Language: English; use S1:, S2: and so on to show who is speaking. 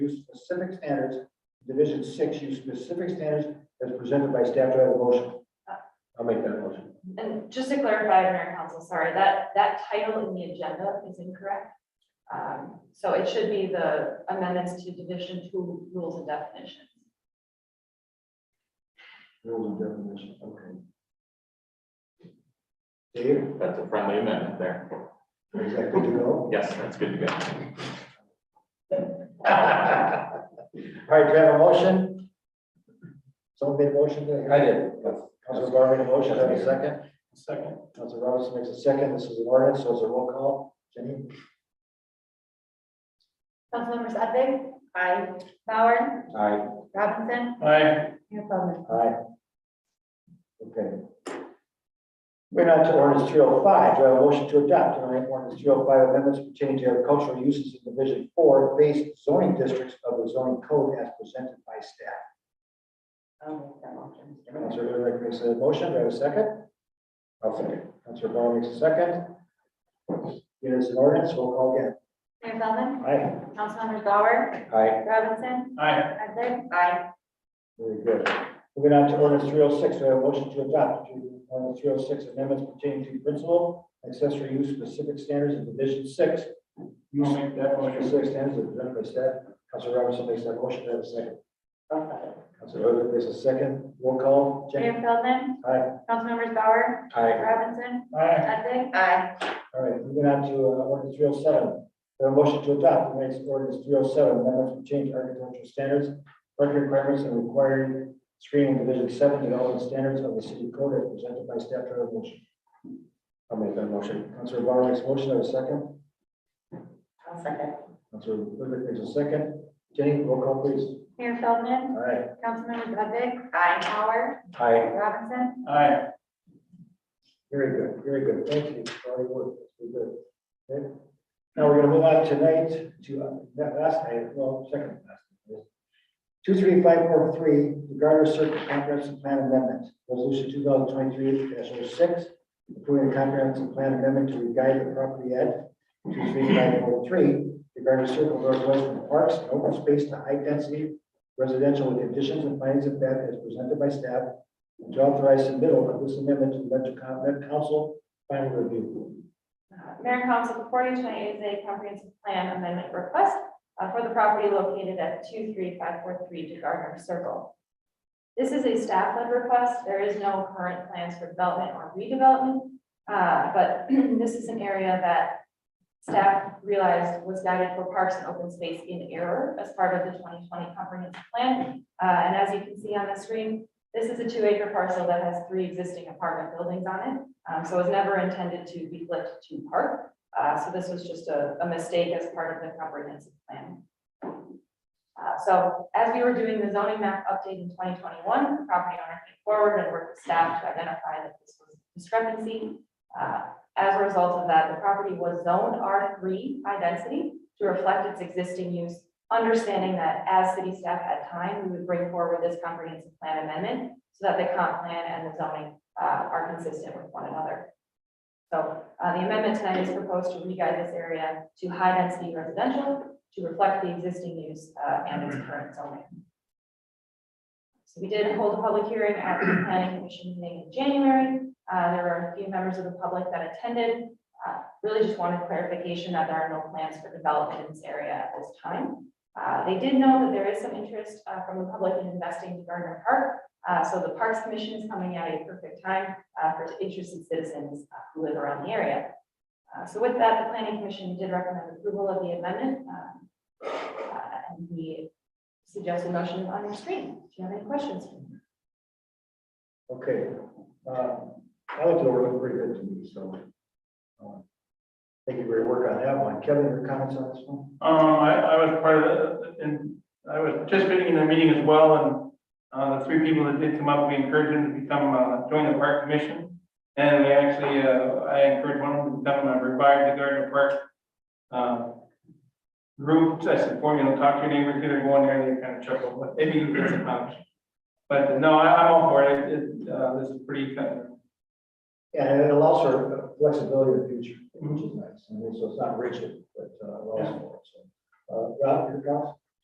S1: use specific standards, division six, use specific standards as presented by staff. Do I have a motion? I'll make that motion.
S2: And just to clarify, Mayor and Council, sorry, that, that title in the agenda is incorrect. Um, so it should be the amendments to Division Two Rules and Definitions.
S1: Rules and definitions, okay. Dave,
S3: That's a friendly amendment there.
S1: is that good to go?
S3: Yes, that's good to go.
S1: All right, do you have a motion? Someone made a motion today? I did. Council Barber made a motion, have a second? Second. Council Robinson makes a second, this is an ordinance, so it's a roll call. Jenny?
S4: Councilmember Sathib? Aye. Bauer?
S1: Aye.
S4: Robinson?
S5: Aye.
S4: Mayor Plummer?
S1: Aye. Okay. We're now to ordinance three oh five, do I have a motion to adopt tonight ordinance three oh five amendments pertaining to agricultural uses in division four based zoning districts of the zoning code as presented by staff?
S4: I'll make that motion, Mr. Mayor.
S1: Councilor Riddick makes a motion, do I have a second? I'll second. Councilor Barr makes a second. It is an ordinance, we'll call again.
S4: Mayor Plummer?
S1: Aye.
S4: Councilmembers Bauer?
S1: Aye.
S4: Robinson?
S5: Aye.
S4: Sathib? Aye.
S1: Very good. Moving on to ordinance three oh six, do I have a motion to adopt to ordinance three oh six amendments pertaining to principal accessory use specific standards in division six?
S5: You will make that motion.
S1: Specific standards of the benefit staff. Councilor Robinson makes that motion, do I have a second? Councilor Riddick makes a second, roll call, Jenny?
S4: Mayor Feldman?
S1: Aye.
S4: Councilmembers Bauer?
S1: Aye.
S4: Robinson?
S5: Aye.
S4: Sathib? Aye.
S1: All right, moving on to uh, ordinance three oh seven. There are motion to adopt tonight's ordinance three oh seven, amendments to change architectural standards, parking requirements and required screening division seven, development standards of the city code as presented by staff to have a motion. I'll make that motion. Councilor Barr makes a motion, I have a second.
S4: I'll second.
S1: Councilor Ludwig makes a second. Jenny, roll call please.
S4: Mayor Feldman?
S1: All right.
S4: Councilmembers Sathib? Aye. Bauer?
S1: Aye.
S4: Robinson?
S5: Aye.
S1: Very good, very good. Thank you. Very good. Very good. Okay. Now we're gonna move on tonight to uh, that last item, well, second last. Two, three, five, four, three, the Garter Circle Comprehensive Plan Amendment, Resolution two thousand twenty-three 6 approving a comprehensive plan amendment to re-guide the property at two, three, five, four, three, the Garter Circle Northwest from parks and open space to high-density residential with additions and findings of fact as presented by staff and to authorize submittal of this amendment to the Metro Con- Met Council final review.
S2: Uh, Mayor and Council, before you tonight is a comprehensive plan amendment request uh, for the property located at two three five four three DeGarner Circle. This is a staff-led request. There is no current plans for development or redevelopment. uh, But this is an area that staff realized was guided for parks and open space in error as part of the twenty twenty comprehensive plan. Uh, And as you can see on the screen, this is a two-acre parcel that has three existing apartment buildings on it. Um, so it was never intended to be flipped to park. Uh, so this was just a, a mistake as part of the comprehensive plan. Uh, so as we were doing the zoning map update in twenty twenty-one, the property owner came forward and worked with staff to identify that this was a discrepancy. Uh, as a result of that, the property was zoned R three high density to reflect its existing use. Understanding that as city staff had time, we would bring forward this comprehensive plan amendment so that the comp plan and the zoning uh, are consistent with one another. So uh, the amendment tonight is proposed to re-guide this area to high-density residential to reflect the existing use uh, and its current zoning. So we did hold a public hearing at the planning commission meeting in January. Uh, There were a few members of the public that attended. Uh, Really just wanted clarification that there are no plans for development in this area at this time. Uh, They did know that there is some interest uh, from the public in investing in Gardner Park, uh, so the Parks Commission is coming at a perfect time, uh, for interested citizens uh, who live around the area. Uh, so with that, the planning commission did recommend approval of the amendment, um, uh, and the suggested motion is on your screen. Do you have any questions?
S1: Okay, uh, I looked it over, it looked pretty good to me, so. uh, Thank you for your work on that one. Kevin, your comments on this one?
S5: Um, I, I was part of the, and I was participating in the meeting as well, and, uh, the three people that did come up, we encouraged them to become, uh, join the park commission. And they actually, uh, I encouraged one of them to become a revive the Gardner Park, um, group, I said, form, you know, talk to your neighbor, give it one, and they kind of chuckled, but maybe you can get some knowledge. But no, I, I'm all for it, it, uh, this is pretty kind of
S1: Yeah, and it allows for flexibility in the future, which is nice. I mean, so it's not rigid, but, uh, allows for it, so. Uh, Rob, your comments?